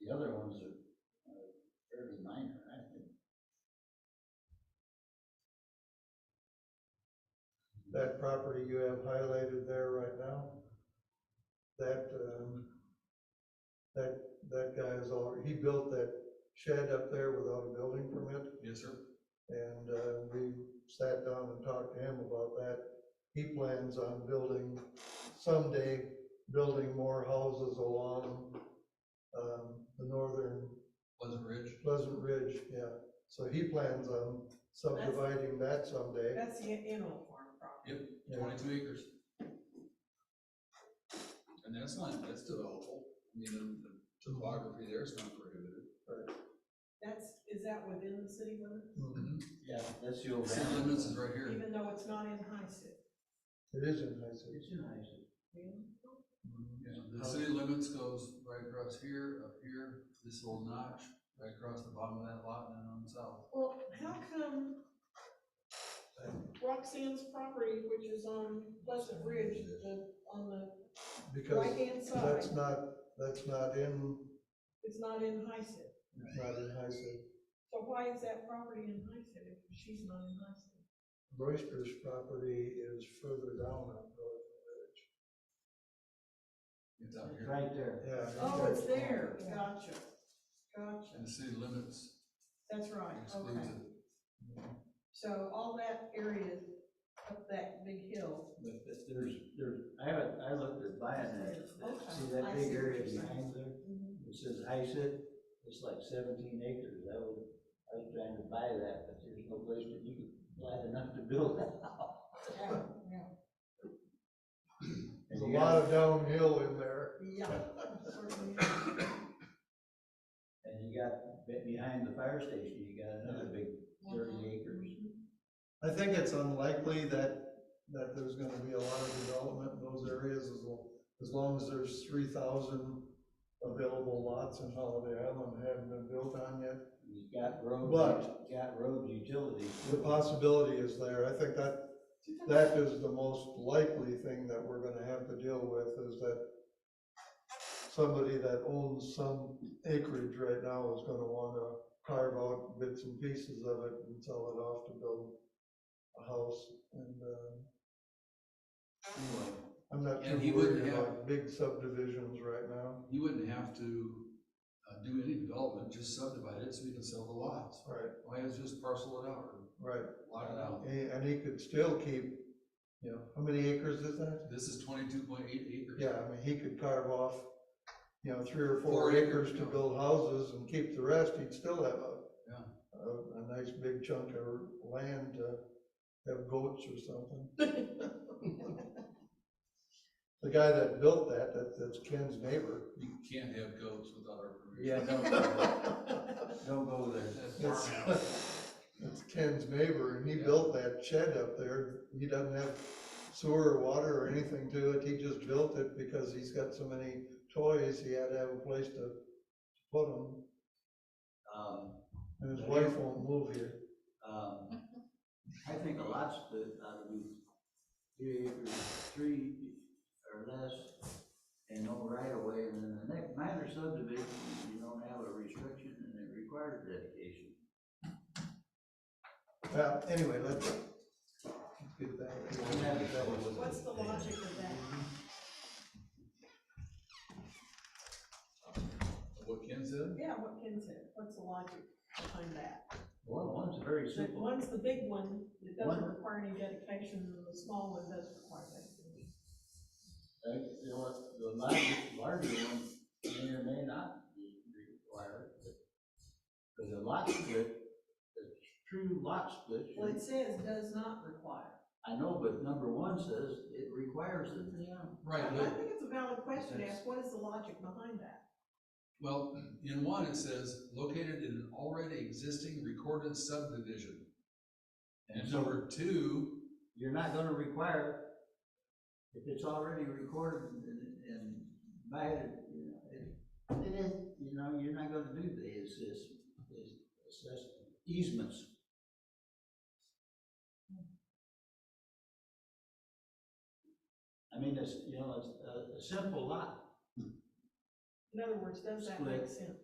The other ones are uh, fairly minor, I think. That property you have highlighted there right now, that, um, that, that guy is already, he built that shed up there without a building permit. Yes, sir. And uh, we sat down and talked to him about that. He plans on building, someday, building more houses along um, the northern Pleasant Ridge. Pleasant Ridge, yeah. So he plans on subdividing that someday. That's the animal farm property. Yep, twenty-two acres. And that's not, that's developable. I mean, the- the topography there is not prohibited. That's, is that within the city limits? Mhm. Yeah, that's the old. City Ramblin'. limits is right here. Even though it's not in High City? It is in High City. It's in high school. Yeah, the city limits goes right across here, up here, this little notch, right across the bottom of that lot and then on south. Well, how come Roxanne's property, which is on Pleasant Ridge, the, on the Because right-hand side, that's not, that's not in, is not in High City? it's not in High City. So why is that property in High City if she's not in High City? Royster's property is further down on Northern It's out It's here. right there. Village. Yeah. Oh, it's there, gotcha, And gotcha, the city limits that's right, excludes okay. it. So all that area up that big hill, But th- there's, there's, I haven't, I looked at buying that. Okay, See that I big see what area you're saying. behind there? Mhm. It says high sit, it's like seventeen acres. I was, I was trying to buy that, but there's no place that you could buy enough to build that house. yeah, yeah. There's a lot of downhill in there. Yeah, certainly is. And you got, be- behind the fire station, you got another big Uh-huh. thirty acres. I think it's unlikely that, that there's gonna be a lot of development in those areas as long, as long as there's three thousand available lots in Holiday Island that haven't been built on yet. You got road, But- you got road utilities. The possibility is there. I think that, that is the most likely thing that we're gonna have to deal with is that somebody that owns some acreage right now is gonna wanna carve out bits and pieces of it and sell it off to build a house and, uh, Anyway, I'm not And he too wouldn't worried have- about big subdivisions right now. you wouldn't have to, uh, do any development, just subdivide it so you can sell the lots. Right, Why is just parcel it out or right. lot it out? And, and he could still keep, you know, how many acres is that? This is twenty-two point eight acres. Yeah, I mean, he could carve off, you know, three or Four four acres acres, to yeah. build houses and keep the rest, he'd still have a Yeah. a, a nice big chunk of land to have goats or something. The guy that built that, that, that's Ken's neighbor, You can't have goats without our Yeah, permission. don't, don't go there. That's That's- farm out. that's Ken's neighbor, and he Yeah. built that shed up there. He doesn't have sewer or water or anything to it, he just built it because he's got so many toys, he had to have a place to put them. Um, And his Yeah. wife won't move here. um, I think a lot's that ought to be three acres, three or less, and no right of way, and then the next minor subdivision, you don't have a restriction and it requires dedication. Well, anyway, let's get back. I'm having trouble with it. What's the logic of that? What Ken said? Yeah, what Ken said, what's the logic behind that? One, one's very The simple, one's the big one, it doesn't One- require any dedication, and the small one does require dedication. Uh, you know, the larger, larger one may or may not be required, but, but the lot split, the true lot split. should- Well, it says does not require. I know, but number one says it requires it. Yeah. I Right, I but, think it's a valid question, to ask what is the logic behind that? well, in one, it says located in an already existing recorded subdivision. And number two, You're not gonna require, if it's already recorded and, and by it, you know, it, it is, you know, you're not gonna do the assess, assess easements. I mean, it's, you know, it's a, a simple lot. In other words, does that make sense?